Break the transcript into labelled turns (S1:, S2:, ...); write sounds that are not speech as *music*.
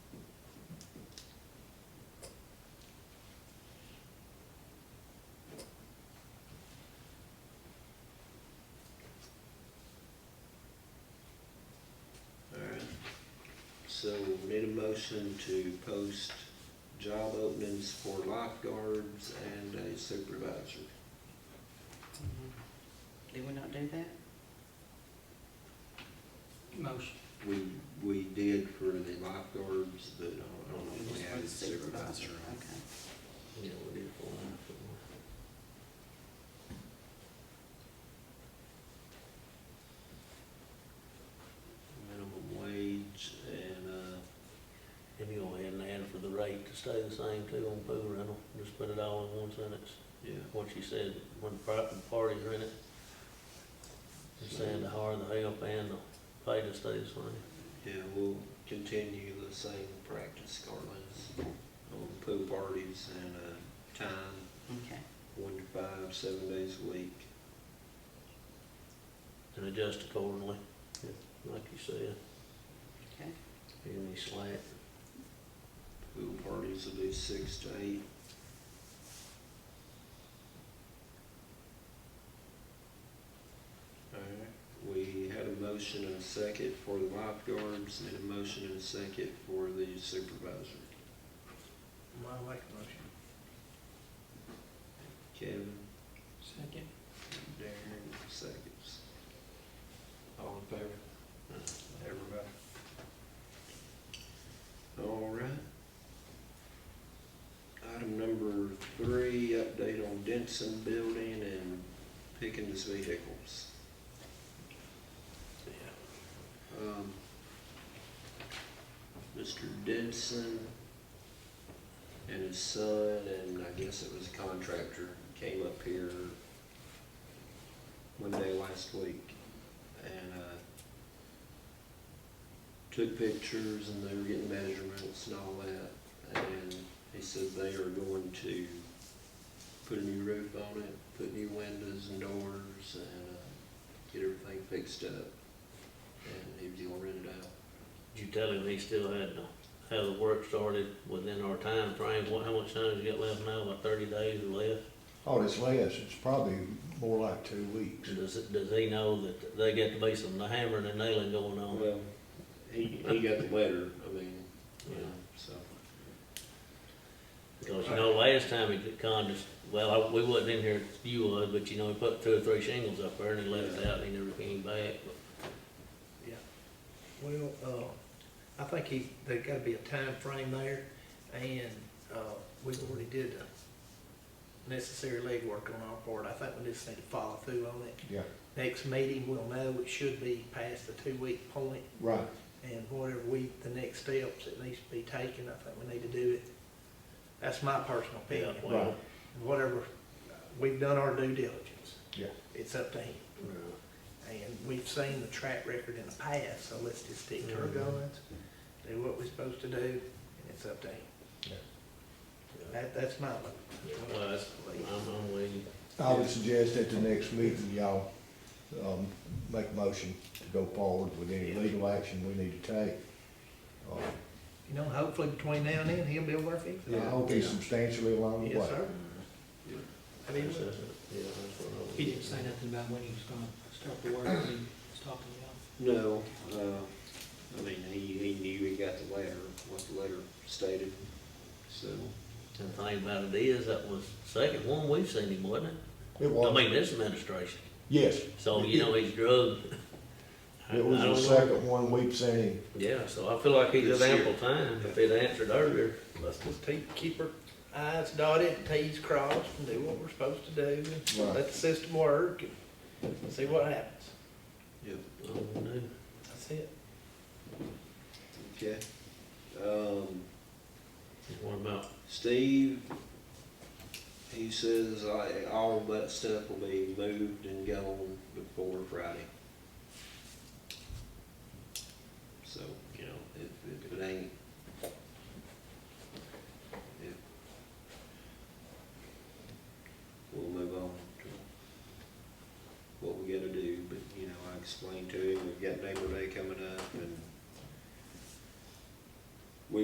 S1: So we made a motion to post job openings for lifeguards and a supervisor.
S2: Did we not do that?
S3: Motion.
S1: We, we did for the lifeguards, but I don't- I don't know if we had a supervisor.
S2: Okay.
S1: You know, we did for lifeguards. Minimum wage and, uh,
S4: If you go ahead and add for the rate to stay the same too on pool rental, just put it all in one sentence,
S1: yeah.
S4: what she said, when pri- when parties are in it. Just saying the hard, the help and the pay to stay the same.
S1: Yeah, we'll continue the same practice, Carlos, on pool parties and, uh, time,
S2: Okay.
S1: one to five, seven days a week.
S4: and adjust accordingly, like you said,
S2: Okay.
S4: give me slack.
S1: Pool parties will be six to eight. Alright, we had a motion and a second for the lifeguards and a motion and a second for the supervisor.
S3: I like motion.
S1: Kevin?
S3: Second.
S1: Darren seconds. All in favor? Everybody? All right. Item number three, update on Denson Building and Pickens vehicles. Um, Mr. Denson and his son, and I guess it was a contractor, came up here one day last week and uh, took pictures and they were getting measurements and all that. And he said they are going to put a new roof on it, put new windows and doors and uh, get everything fixed up. And he was gonna rent it out.
S4: Did you tell him he still had to have the work started within our time frame? What, how much time has he got left now, about thirty days or less?
S5: All this lasts, Oh, it's probably more like two weeks.
S4: Does, it- does he know that they got to be some hammering and nailing going on?
S1: Well, he, he got the letter, I mean, you know, so.
S4: Because, you know, last time he conned us, well, I- we wasn't in here, you was, but you know, he put two or three shingles up there and he left it out and he never came back.
S3: Well, uh, I think he, there's gotta be a time frame there, and, uh, we already did the necessary legwork on our part. I think we just need to follow through on it.
S5: Yeah,
S3: Next meeting, we'll know it should be past the two-week point,
S5: right.
S3: and whatever we, the next steps that needs to be taken, I think we need to do it. That's my personal opinion.
S4: Yeah, well,
S3: Whatever, we've done our due diligence.
S5: Yeah.
S3: It's up to him.
S4: uh,
S3: And we've seen the track record in the past, so let's just stick to our
S4: Mhm.
S3: guns, do what we're supposed to do, and it's up to him. That, that's my, look.
S4: yeah, well, that's, I'm, I'm with you.
S5: I would suggest at the next meeting, y'all, um, make a motion to go forward with any legal action we need to take. Uh,
S3: you know, hopefully between now and then, he'll be able to fix it.
S5: I hope he's substantially along the way.
S3: Yes, sir. I mean,
S4: That's- that's- yeah, that's what I was-
S6: He didn't say nothing about when he was gonna start the work, when he was talking about.
S1: No, uh, I mean, he, he knew he got the letter, what the letter stated, so.
S4: And the thing about it is, that was second one we've seen him, wasn't it?
S5: It
S4: I
S5: was,
S4: mean, this administration,
S5: yes.
S4: so, you know, he's drugged. I-
S5: *laughs* It was
S4: I
S5: the
S4: don't know.
S5: second one we've seen.
S4: Yeah, so I feel like he's
S1: This
S4: had
S1: year.
S4: ample time, if he'd answered earlier,
S3: let's just keep, keep our i's dotted, and t's crossed, and do what we're supposed to do, and
S5: Right.
S3: let the system work, and see what happens.
S1: Yep.
S4: I don't know.
S3: That's it.
S1: Okay. Um,
S4: What about
S1: Steve, he says I, all of that stuff will be moved and gone before Friday. So, you know, if, if it ain't